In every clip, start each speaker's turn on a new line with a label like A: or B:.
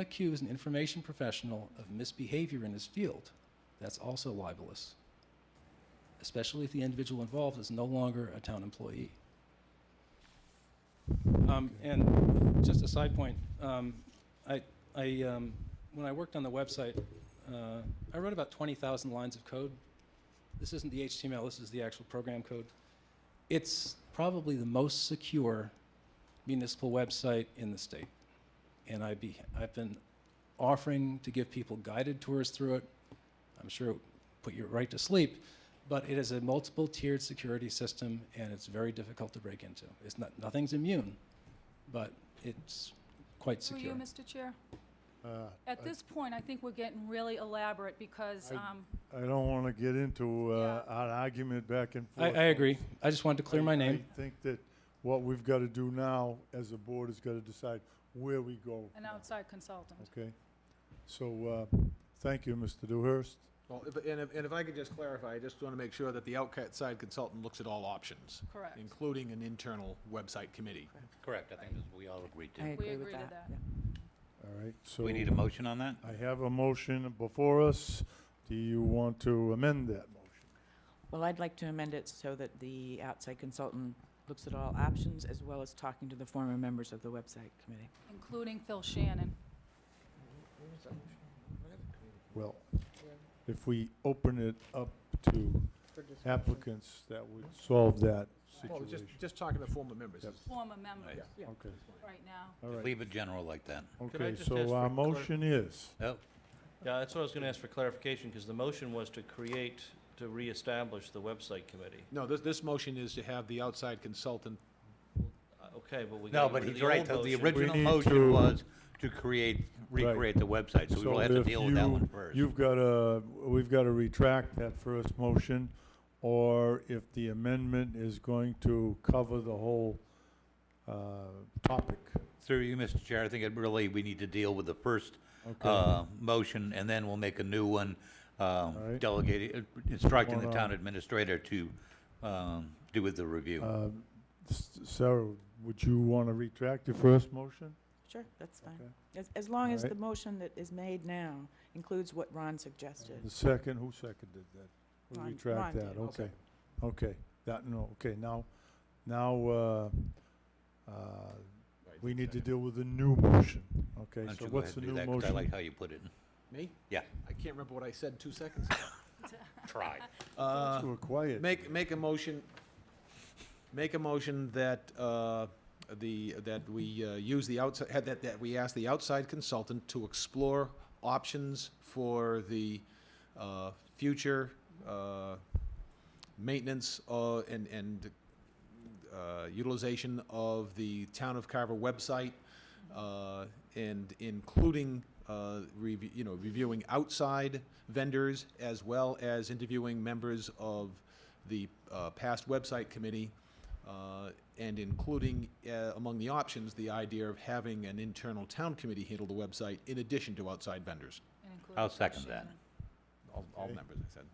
A: accuse an information professional of misbehavior in his field, that's also libelous, especially if the individual involved is no longer a town employee. Um, And just a side point, um, I, I, um, when I worked on the website, uh, I wrote about 20,000 lines of code. This isn't the HTML, this is the actual program code. It's probably the most secure municipal website in the state. And I'd be, I've been offering to give people guided tours through it. I'm sure it would put you right to sleep, but it is a multiple tiered security system and it's very difficult to break into. It's not, nothing's immune, but it's quite
B: Through
A: secure.
B: you, Mr. Chair.
C: Uh,
B: At this point, I think we're getting really elaborate because,
C: I-
B: um,
C: I don't want to get into uh,
B: Yeah.
C: an argument back and
A: I,
C: forth.
A: I agree. I just wanted to clear my
C: I-
A: name.
C: I think that what we've got to do now, as a board, is got to decide where we go.
B: an outside consultant.
C: Okay? So, uh, thank you, Mr. Dewhurst.
D: Well, if- and if, and if I could just clarify, I just want to make sure that the outside consultant looks at all options,
B: Correct.
D: including an internal website committee.
E: Correct, I think that's what we all agreed
F: I
E: to.
B: We
F: agree with
B: agree to
F: that.
B: that.
C: All right, so.
E: We need a motion on that?
C: I have a motion before us. Do you want to amend that motion?
F: Well, I'd like to amend it so that the outside consultant looks at all options as well as talking to the former members of the website committee.
B: Including Phil Shannon.
C: Well, if we open it up to applicants, that would solve that
D: Well, just,
C: situation.
D: just talking to former members.
C: Yep.
B: Former members
D: Yeah.
C: Okay,
B: right now.
C: all
E: Just
C: right.
E: Leave it general like that.
G: Can I
C: Okay,
G: just ask
C: so
G: for
C: our
G: a clar-
C: motion is,
E: Oh,
G: Yeah, that's what I was going to ask for clarification, because the motion was to create, to reestablish the website committee.
D: No, this, this motion is to have the outside consultant,
G: Uh, Okay, but we.
E: no,
G: gotta
E: but
G: go to
E: he's right,
G: old
E: though. the
G: motion.
E: original
C: need
E: motion
C: to- uh,
E: was to create,
C: Right.
E: recreate the website, so we will have to
C: if
E: deal with that
C: you-
E: one first.
C: You've got to, we've got to retract that first motion, or if the amendment is going to cover the whole uh, topic.
E: Through you, Mr. Chair, I think it really, we need to deal with the first
C: Okay.
E: uh, motion, and then we'll make a new one, um,
C: right.
E: delegating, instructing the
C: Hold
E: town
C: on.
E: administrator to um, do with the review.
C: Um, S- Sarah, would you want to retract your first motion?
F: Sure, that's fine.
C: Okay.
F: As, as long as
C: Alright.
F: the motion that is made now includes what Ron suggested.
C: The second, who seconded that?
F: Ron-
C: We
F: Ron
C: retract
F: did.
C: that, okay. Okay, that, no, okay, now, now, uh, uh, we need to deal with the new motion, okay?
E: Why don't
C: So
E: you go
C: what's
E: ahead
C: the
E: and do
C: new
E: that, 'cause I
C: motion?
E: like how you put it.
D: me?
E: Yeah.
D: I can't remember what I said two seconds ago.
E: Try.
D: Uh,
C: To quiet.
D: Make, make a motion, make a motion that, uh, the, that we uh, use the outside, had that, that we ask the outside consultant to explore options for the uh, future uh, maintenance uh, and, and uh, utilization of the Town of Carver website, uh, and including, uh, rev- you know, reviewing outside vendors as well as interviewing members of the uh, past website committee, uh, and including uh, among the options, the idea of having an internal town committee handle the website in addition to outside vendors,
B: and including
E: I'll
B: Phil
E: second that.
B: Shannon.
D: all, all
C: Okay.
D: members, I said.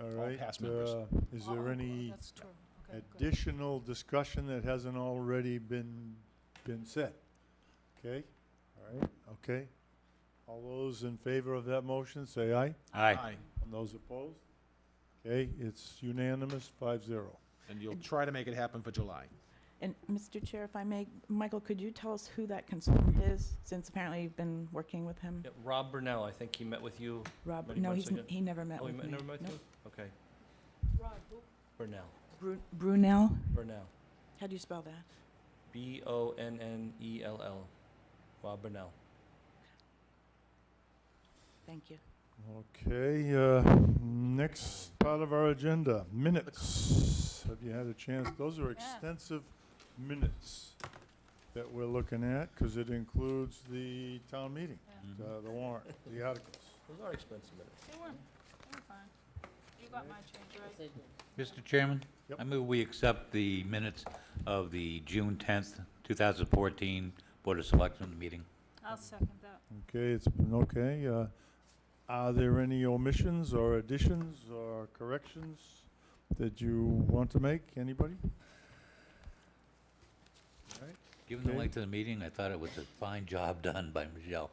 C: All
D: all
C: right,
D: past members.
C: uh, is
B: Oh,
C: there any
B: That's true. Okay, good.
C: additional discussion that hasn't already been, been said? Okay, all right, okay. All those in favor of that motion, say aye.
E: Aye.
C: And those opposed? Okay, it's unanimous, five zero.
D: And you'll try to make it happen for July.
F: And, Mr. Chair, if I may, Michael, could you tell us who that consultant is, since apparently you've been working with him?
G: Yeah, Rob Brunel, I think he met with you.
F: Rob,
G: Many
F: no,
G: months
F: he's, n-
G: ago.
F: he never met
G: Oh, he
F: with
G: met-
F: me.
G: never met
F: No.
G: you? Okay,
B: Rod, who-
G: Brunel,
F: Bru- Brunel,
G: Brunel,
F: how do you spell that?
G: B-O-N-N-E-L-L, E Rob Brunel.
F: Thank you.
C: Okay, uh, next part of our agenda, minutes. Have you had a chance? Those are extensive minutes that we're looking at, because it includes the town meeting,
E: Mhm.
C: uh, the warrant, the articles.
G: Those are expensive minutes.
B: They weren't, they were fine. You got my change, right?
E: Mr. Chairman?
C: Yep.
E: I move we accept the minutes of the June 10th, 2014 Board of Selectmen meeting.
B: I'll second that.
C: Okay, it's been okay. uh, Are there any omissions or additions or corrections that you want to make? Anybody?
E: Given the
C: Okay.
E: length of the meeting, I thought it was a fine job done by Michelle.